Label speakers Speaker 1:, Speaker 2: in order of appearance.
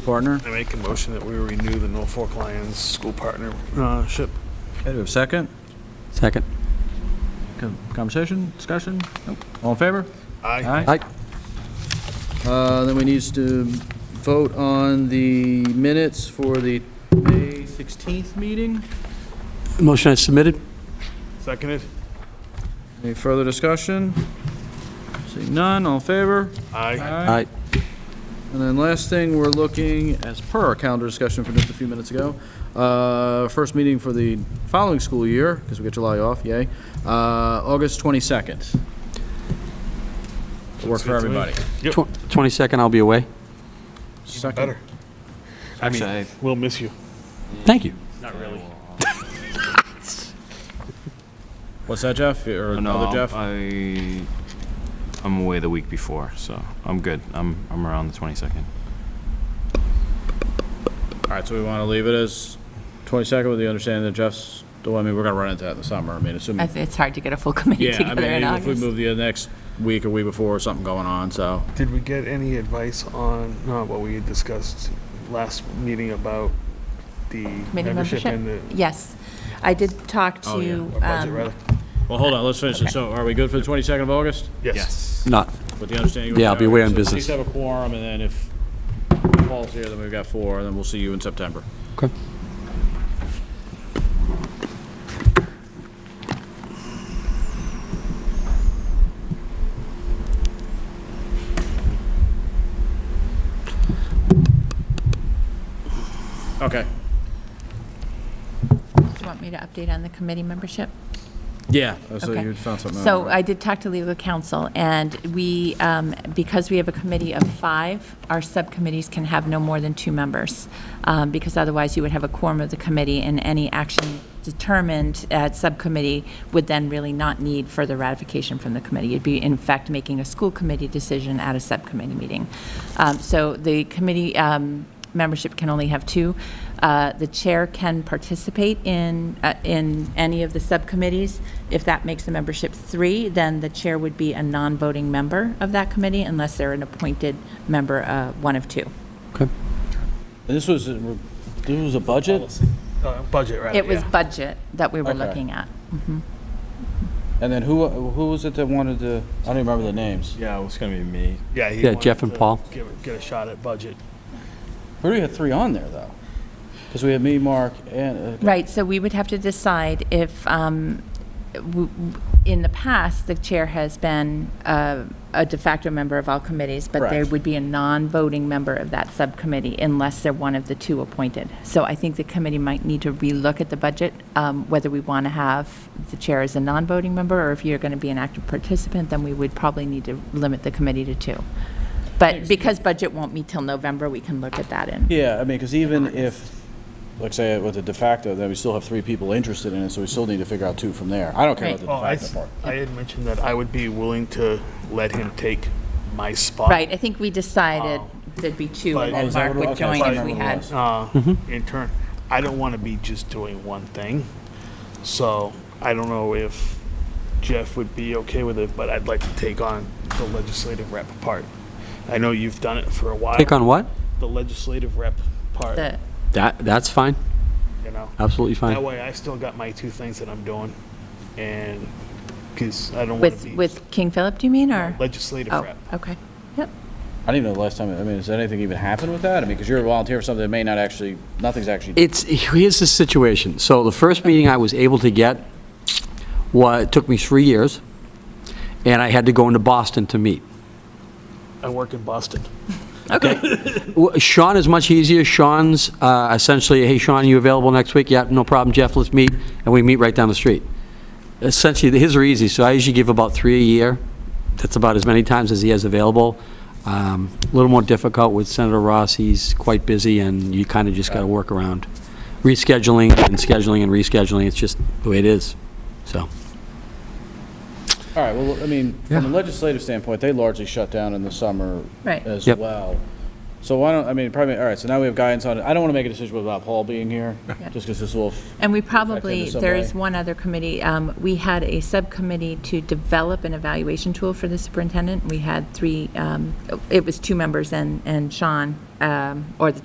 Speaker 1: School partner.
Speaker 2: I make a motion that we renew the Norfolk Lions school partnership.
Speaker 1: Okay, do we have a second?
Speaker 3: Second.
Speaker 1: Con- Conversation, discussion? Nope. All in favor?
Speaker 2: Aye.
Speaker 3: Aye.
Speaker 4: Uh, Then we need to vote on the minutes for the May 16th meeting.
Speaker 3: Motion is submitted.
Speaker 2: Seconded?
Speaker 4: Any further discussion? Seeing none, all in favor?
Speaker 2: Aye.
Speaker 3: Aye.
Speaker 4: And then last thing, we're looking, as per our calendar discussion from just a few minutes ago, uh, first meeting for the following school year, because we get July off, yay, uh, August 22nd.
Speaker 1: Work for
Speaker 2: Sounds good to me.
Speaker 1: everybody.
Speaker 2: Yep.
Speaker 3: Tw- 22nd, I'll be away.
Speaker 4: Second.
Speaker 2: Better. I mean, we'll miss you.
Speaker 3: Thank you.
Speaker 2: Not really.
Speaker 1: What's that, Jeff? Or
Speaker 5: No,
Speaker 1: other Jeff?
Speaker 5: I, I'm away the week before, so I'm good. I'm, I'm around the 22nd.
Speaker 4: All right, so we want to leave it as 22nd with the understanding that Jeff's, the one- I mean, we're going to run into that in the summer, I mean,
Speaker 6: I
Speaker 4: assuming.
Speaker 6: th- It's hard to get a full committee
Speaker 4: Mm. Yeah, I
Speaker 6: together in
Speaker 4: mean, if we
Speaker 6: August.
Speaker 4: move the next week or week before, something going on, so.
Speaker 2: Did we get any advice on, not what we had discussed last meeting about the
Speaker 6: Committee
Speaker 2: membership
Speaker 6: membership?
Speaker 2: and the
Speaker 6: Yes, I did talk
Speaker 4: Oh, yeah.
Speaker 6: to,
Speaker 2: or budget,
Speaker 6: um,
Speaker 2: rather?
Speaker 4: Well, hold on, let's finish it. So are we good for the 22nd of August?
Speaker 2: Yes.
Speaker 3: Not,
Speaker 4: With the understanding.
Speaker 3: Yeah, I'll be away on
Speaker 4: So At
Speaker 3: business.
Speaker 4: least have a quorum, and then if Paul's here, then we've got four, and then we'll see you in September.
Speaker 3: okay.
Speaker 4: Okay.
Speaker 6: do you want me to update on the committee membership?
Speaker 4: Yeah. So
Speaker 6: Okay.
Speaker 4: you found something. out,
Speaker 6: So
Speaker 4: right?
Speaker 6: I did talk to legal counsel, and we, um, because we have a committee of five, our subcommittees can have no more than two members, um, because otherwise you would have a quorum of the committee, and any action determined at subcommittee would then really not need further ratification from the committee. You'd be, in fact, making a school committee decision at a subcommittee meeting. Um, So the committee um, membership can only have two. Uh, The chair can participate in, uh, in any of the subcommittees. If that makes the membership three, then the chair would be a non-voting member of that committee unless they're an appointed member, uh, one of two.
Speaker 4: And This was, a- this was a budget,
Speaker 2: Uh, Budget, rather,
Speaker 6: It was
Speaker 2: yeah.
Speaker 6: budget that we were
Speaker 4: Okay.
Speaker 6: looking at.
Speaker 4: and then who, who was it that wanted to, I don't even remember the names.
Speaker 5: Yeah, it's gonna be me.
Speaker 2: Yeah. he
Speaker 3: Yeah,
Speaker 2: wanted
Speaker 3: Jeff and
Speaker 2: to
Speaker 3: Paul.
Speaker 2: give it- Get a shot at budget.
Speaker 4: We already had three on there, though. Because we had me, Mark, and. uh,
Speaker 6: Right, so we would have to decide if, um, w- w- in the past, the chair has been uh, a de facto member of all committees, but they
Speaker 4: Correct.
Speaker 6: would be a non-voting member of that subcommittee unless they're one of the two appointed. So I think the committee might need to relook at the budget, um, whether we want to have the chair as a non-voting member, or if you're going to be an active participant, then we would probably need to limit the committee to two. But because budget won't meet till November, we can look at that in.
Speaker 4: Yeah, I mean, because even if, like say with the de facto, then we still have three people interested in it, so we still need to figure out two from there. I don't care about the
Speaker 2: Oh, I,
Speaker 4: de
Speaker 2: s-
Speaker 4: facto part.
Speaker 2: I had mentioned that I would be willing to let him take my spot.
Speaker 6: Right, I think we decided there'd be two,
Speaker 2: But-
Speaker 6: and
Speaker 2: Oh,
Speaker 6: then
Speaker 2: is
Speaker 4: that
Speaker 6: Mark
Speaker 4: what it
Speaker 6: would
Speaker 4: was?
Speaker 6: join
Speaker 4: Okay,
Speaker 6: if we
Speaker 4: fine.
Speaker 6: had.
Speaker 2: uh, in turn. I don't want to be just doing one thing. So I don't know if Jeff would be okay with it, but I'd like to take on the legislative rep part. I know you've done it for a while.
Speaker 3: Take on what?
Speaker 2: the legislative rep part,
Speaker 6: The-
Speaker 3: That, that's fine.
Speaker 2: you know.
Speaker 3: Absolutely
Speaker 2: That
Speaker 3: fine.
Speaker 2: way I still got my two things that I'm doing. And because I don't want to
Speaker 6: With,
Speaker 2: be
Speaker 6: with King Philip, do you mean, or?
Speaker 2: legislative rep.
Speaker 6: Oh, okay. Yep.
Speaker 4: I don't even know the last time, I mean, has anything even happened with that? I mean, because you're a volunteer for something that may not actually, nothing's actually.
Speaker 3: It's, here's the situation. So the first meeting I was able to get, wa it took me three years, and I had to go into Boston to meet.
Speaker 2: I work in Boston.
Speaker 3: Well, Sean is much easier. Sean's uh, essentially, hey, Sean, you available next week? Yeah, no problem, Jeff, let's meet, and we meet right down the street. Essentially, his are easy, so I usually give about three a year. That's about as many times as he has available. Um, A little more difficult with Senator Ross, he's quite busy, and you kind of just got to work around rescheduling and scheduling and rescheduling, it's just the way it is, so.
Speaker 4: All right, well, I mean, from a legislative standpoint, they largely shut down in the summer
Speaker 6: Right.
Speaker 4: as
Speaker 3: Yep.
Speaker 4: well. So why don't, I mean, probably, all right, so now we have guidance on it. I don't want to make a decision without Paul being here, just because this will, f-
Speaker 6: And we
Speaker 4: Affect
Speaker 6: probably,
Speaker 4: in some
Speaker 6: there
Speaker 4: way.
Speaker 6: is one other committee, um, we had a subcommittee to develop an evaluation tool for the superintendent. We had three, um, it was two members and, and Sean, um, or the